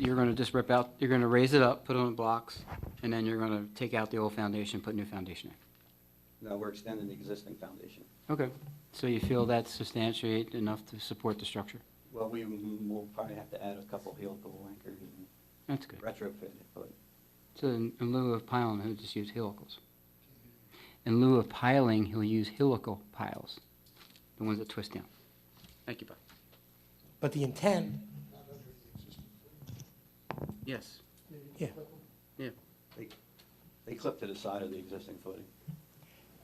you're gonna just rip out, you're gonna raise it up, put it on blocks, and then you're gonna take out the old foundation, put new foundation No, we're extending the existing foundation. in. Okay, so you feel that's substantiate enough to support the structure? Well, we will probably have to add a couple helical anchors and That's good. retrofit it, but So in in lieu of piling, he'll just use helicals. In lieu of piling, he'll use helical piles, the ones that twist down. Thank you, Bob. But the intent, Yes, yeah, yeah. they, they clip to the side of the existing footing.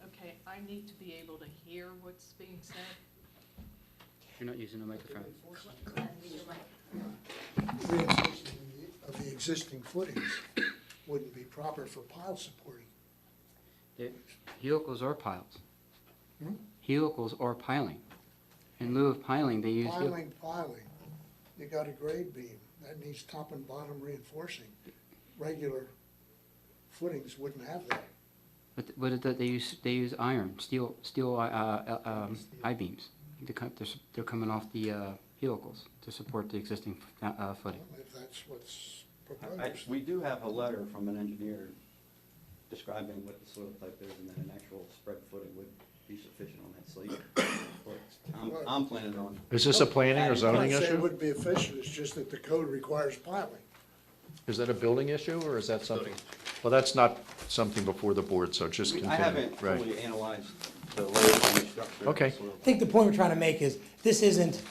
Okay, I need to be able to hear what's being said. You're not using a microphone. reinforcement of the existing footings wouldn't be proper for pile supporting. They- Helicals are piles. Hmm? Helicals are piling. In lieu of piling, they use. hel- Piling, piling, you got a grade beam, that needs top and bottom reinforcing. Regular footings wouldn't have that. But, th- but it, that they use, they use iron, steel, steel, uh, uh, um, I-beams. They're, co- they're, s- they're coming off the, uh, helicals to support the existing, fo- uh, footing. If that's what's I- I- proposed. We do have a letter from an engineer describing what the soil type is, and then an actual spread footing would be sufficient on that slate. But I'm, I'm planning on, Is this a planning or zoning I'd say it issue? would be efficient, it's just that the code requires piling. Is that a building issue, or is that something? Well, that's not something before the board, so just I continue, haven't right? fully analyzed the layout and the structure of the Okay. soil. I think the point we're trying to make is, this isn't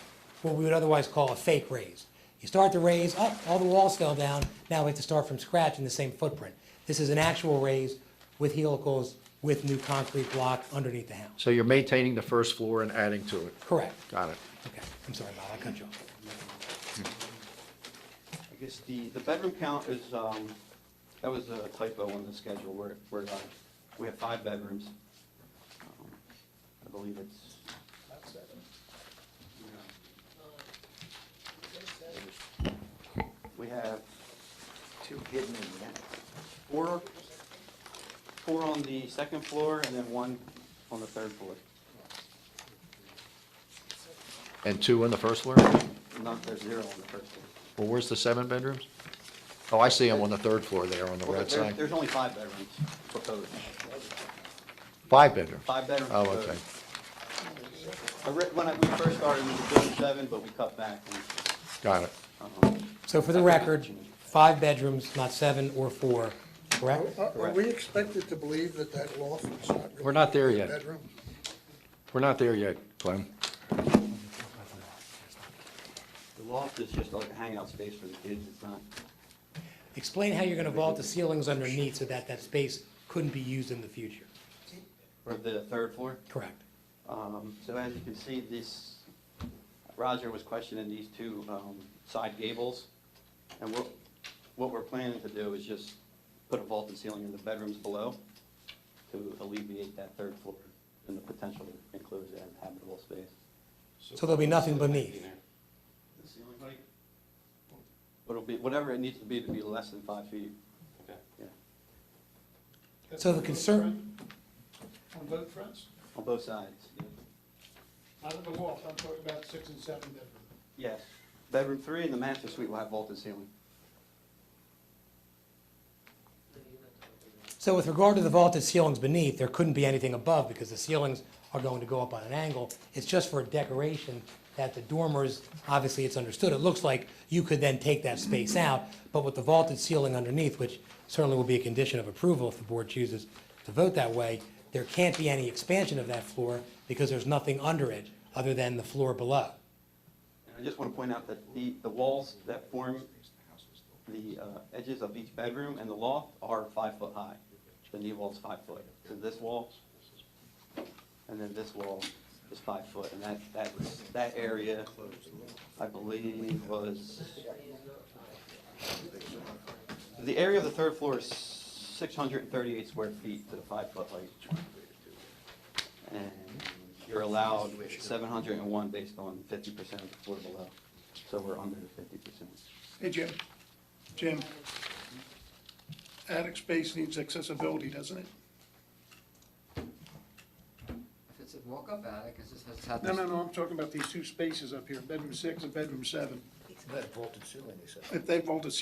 what we would otherwise call a fake raise. You start the raise, oh, all the walls fell down, now we have to start from scratch in the same footprint. This is an actual raise with helicals, with new concrete block underneath the house. So you're maintaining the first floor and adding to it, Correct. got it. Okay, I'm sorry, Bob, I cut you off. I guess the, the bedroom count is, um, that was a typo on the schedule, where, where, uh, we have five bedrooms. Um, I believe it's. No. We have. Two hidden in the attic. Four, four on the second floor and then one on the third floor. And two on the first floor? Not, there's zero on the first floor. Well, where's the seven bedrooms? Oh, I see them on the third floor there on the Well, right there- side. There's only five bedrooms proposed, Five bedrooms? five bedrooms Oh, proposed. okay. I re- When I, we first started, we were doing seven, but we cut back. Got it. and, um, So for the record, five bedrooms, not seven or four, correct? Are, are we expected to believe that that loft is not really? We're not there a yet. Bedroom? We're not there yet, Glenn. The loft is just like a hangout space for the kids, it's not, Explain how you're gonna vault the ceilings underneath so that that space couldn't be used in the future. for the third floor. Correct. Um, So as you can see, this, Roger was questioning these two um, side gables. And what, what we're planning to do is just put a vaulted ceiling in the bedrooms below to alleviate that third floor and the potential to enclose that habitable space. So there'll be nothing beneath. The ceiling height? It'll be, whatever it needs to be to be less than five feet. Okay. Yeah, So the concern, On both fronts? on both sides. yeah. Not in the loft, I'm talking about six and seven bedroom. Yes, bedroom three and the master suite will have vaulted ceiling. so with regard to the vaulted ceilings beneath, there couldn't be anything above because the ceilings are going to go up on an angle. It's just for decoration that the dormers, obviously it's understood, it looks like you could then take that space out, but with the vaulted ceiling underneath, which certainly will be a condition of approval if the board chooses to vote that way, there can't be any expansion of that floor because there's nothing under it other than the floor below. And I just want to point out that the, the walls that form the uh, edges of each bedroom and the loft are five foot high. The knee wall's five foot. So this wall, and then this wall is five foot, and that, that, was- that area, I believe, was, the area of the third floor is six hundred and thirty-eight square feet to the five foot height. And you're allowed seven hundred and one based on fifty percent of the floor below, so we're under the fifty percent. Hey, Jim. Jim. Attic space needs accessibility, doesn't it? If it's a walk-up attic, it's just, it's had No, this. no, no, I'm talking about these two spaces up here, bedroom six and bedroom seven. That vaulted ceiling, he said. If they vaulted